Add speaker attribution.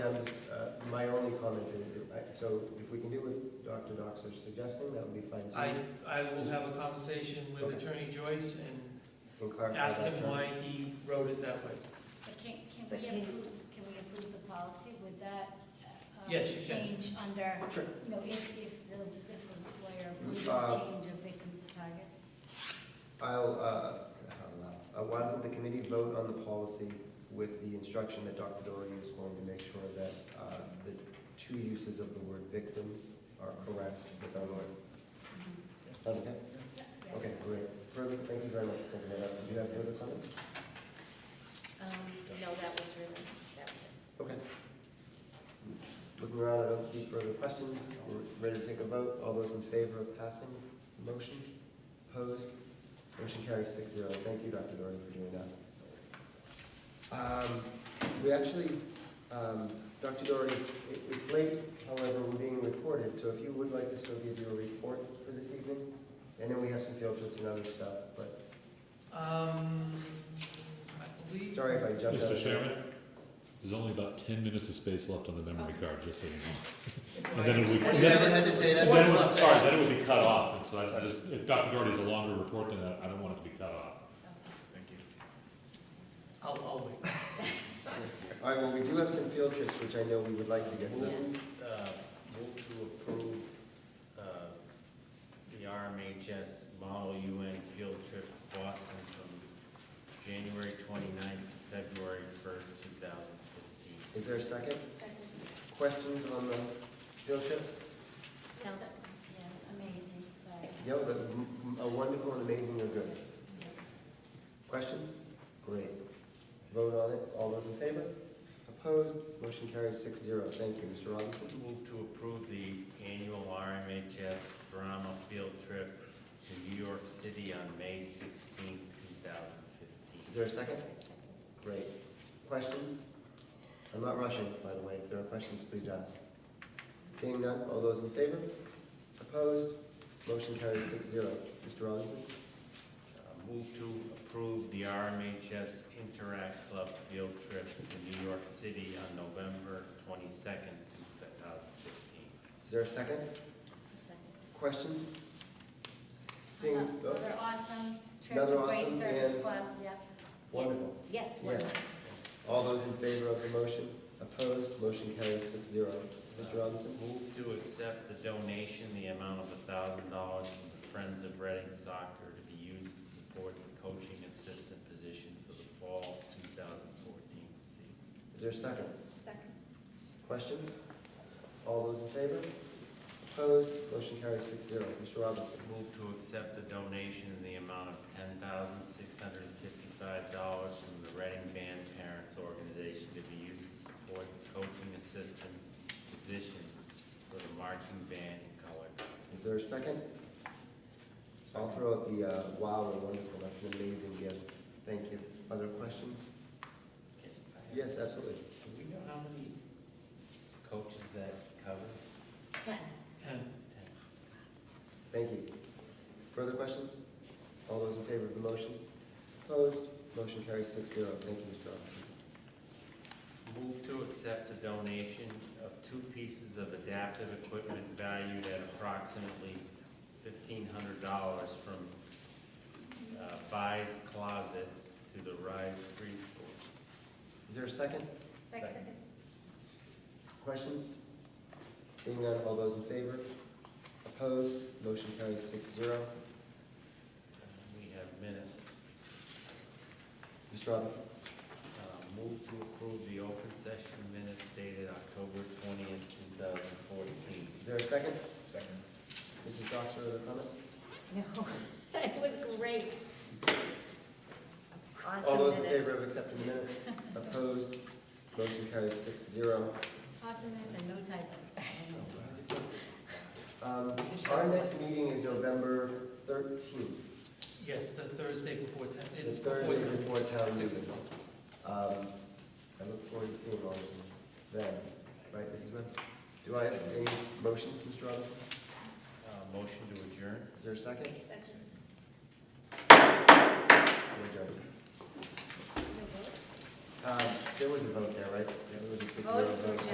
Speaker 1: uh, my only comment is, I- so if we can do what Dr. Dox is suggesting, that would be fine. too.
Speaker 2: I, I will have a conversation with Attorney Joyce and
Speaker 1: And clarify
Speaker 2: ask
Speaker 1: that
Speaker 2: him
Speaker 1: term.
Speaker 2: why he wrote it that way.
Speaker 3: But can, can
Speaker 4: But
Speaker 3: we
Speaker 4: can-
Speaker 3: approve, can we approve the policy with that? uh,
Speaker 2: Yes, you can.
Speaker 3: Change under,
Speaker 1: Sure.
Speaker 3: you know, if, if the, if the lawyer approves
Speaker 1: Uh,
Speaker 3: the change of victims to target?
Speaker 1: I'll, uh, I'll, uh, why doesn't the committee vote on the policy with the instruction that Dr. Doherty is going to make sure that, uh, the two uses of the word victim are correct with our word? Sound okay?
Speaker 3: Yeah.
Speaker 1: Mm-hmm. Okay, great. Further, thank you very much for bringing that up. Do you have further comments?
Speaker 4: Um, no, that was really, that was it.
Speaker 1: Okay. Looking around, I don't see further questions. We're ready to take a vote. All those in favor of passing the motion? Opposed? Motion carries six zero. Thank you, Dr. Doherty, for doing that. Um, We actually, um, Dr. Doherty, it- it's late, however, we're being recorded, so if you would like to still give your report for this evening, and then we have some field trips and other stuff, but
Speaker 2: Um, I believe.
Speaker 1: sorry if I jumped out.
Speaker 5: Mr. Chairman, there's only about ten minutes of space left on the memory card, just so you know. And then it would,
Speaker 1: Have
Speaker 5: then
Speaker 1: you
Speaker 5: it
Speaker 1: ever had to say that?
Speaker 2: What's
Speaker 5: would-
Speaker 2: left?
Speaker 5: sorry, then it would be cut off, and so I, I just, if Dr. Doherty's a longer report than that, I don't want it to be cut off.
Speaker 2: I'll, I'll wait.
Speaker 1: All right, well, we do have some field trips, which I know we would like to get to.
Speaker 6: Move, uh, move to approve, uh, the RMHS Model UN Field Trip to Boston from January twenty-ninth to February first, two thousand fifteen.
Speaker 1: Is there a second?
Speaker 3: That's-
Speaker 1: Questions on the field trip?
Speaker 4: Sounds-
Speaker 3: that's- Yeah, amazing, sorry.
Speaker 1: Yeah, well, the- m- a wonderful and amazing are good. Questions? Great. Vote on it. All those in favor? Opposed? Motion carries six zero. Thank you, Mr. Robinson.
Speaker 6: Move to approve the annual RMHS Brahma Field Trip to New York City on May sixteenth, two thousand
Speaker 1: Is
Speaker 6: fifteen.
Speaker 1: there a second? Great. Questions? I'm not rushing, by the way. If there are questions, please ask. Seeing none, all those in favor? Opposed? Motion carries six zero. Mr. Robinson?
Speaker 6: Uh, Move to approve the RMHS Interact Club Field Trip to New York City on November twenty-second, two thousand fifteen.
Speaker 1: Is there a second? Questions? Seeing, oh,
Speaker 3: Another awesome
Speaker 1: Another
Speaker 3: trip, great
Speaker 1: awesome
Speaker 3: service
Speaker 1: and-
Speaker 3: club, yeah.
Speaker 1: wonderful.
Speaker 4: Yes,
Speaker 1: Yeah.
Speaker 4: well,
Speaker 1: All those in favor of the motion? Opposed? Motion carries six zero. Mr. Robinson?
Speaker 6: Move to accept the donation, the amount of thousand dollars from the Friends of Reading Soccer to be used to support the coaching assistant position for the fall two thousand fourteen season.
Speaker 1: Is there a second?
Speaker 3: Second.
Speaker 1: Questions? All those in favor? Opposed? Motion carries six zero. Mr. Robinson?
Speaker 6: Move to accept the donation in the amount of ten thousand six hundred and fifty-five dollars from the Reading Band Parents Organization to be used to support the coaching assistant positions for the marching band and color. guard.
Speaker 1: Is there a second? I'll throw out the, uh, wow, and wonderful. That's an amazing gift. Thank you. Other questions? Yes, absolutely.
Speaker 6: Do we know how many coaches that covers?
Speaker 4: ten.
Speaker 2: Ten.
Speaker 1: Thank you. Further questions? All those in favor of the motion? Opposed? Motion carries six zero. Thank you, Mr. Robinson.
Speaker 6: Move to accept a donation of two pieces of adaptive equipment valued at approximately fifteen hundred dollars from uh, Buys Closet to the Rise Preschool.
Speaker 1: Is there a second?
Speaker 3: Second.
Speaker 1: Questions? Seeing none, all those in favor? Opposed? Motion carries six zero.
Speaker 6: We have minutes.
Speaker 1: Mr. Robinson?
Speaker 6: Uh, Move to approve the open session minutes dated October twentieth, two thousand fourteen.
Speaker 1: Is there a second? Second. Mrs. Doxer, other comments?
Speaker 4: No, that was great.
Speaker 1: All those
Speaker 4: Awesome
Speaker 1: in favor of
Speaker 4: minutes.
Speaker 1: accepting the minutes? Opposed? Motion carries six zero.
Speaker 4: Awesome minutes and no typos.
Speaker 1: Um, our next meeting is November thirteenth.
Speaker 2: Yes, the Thursday before ten,
Speaker 1: It's
Speaker 2: it's before
Speaker 1: Thursday
Speaker 2: ten.
Speaker 1: before town
Speaker 2: Six
Speaker 1: meeting. Um, I look forward to seeing all of you then, right, Mrs. Webb? Do I have any motions, Mr. Robinson?
Speaker 6: Uh, Motion to adjourn.
Speaker 1: Is there a second? We're adjourned. Um, there was a vote there, right? There was a six zero
Speaker 3: Vote to
Speaker 1: vote.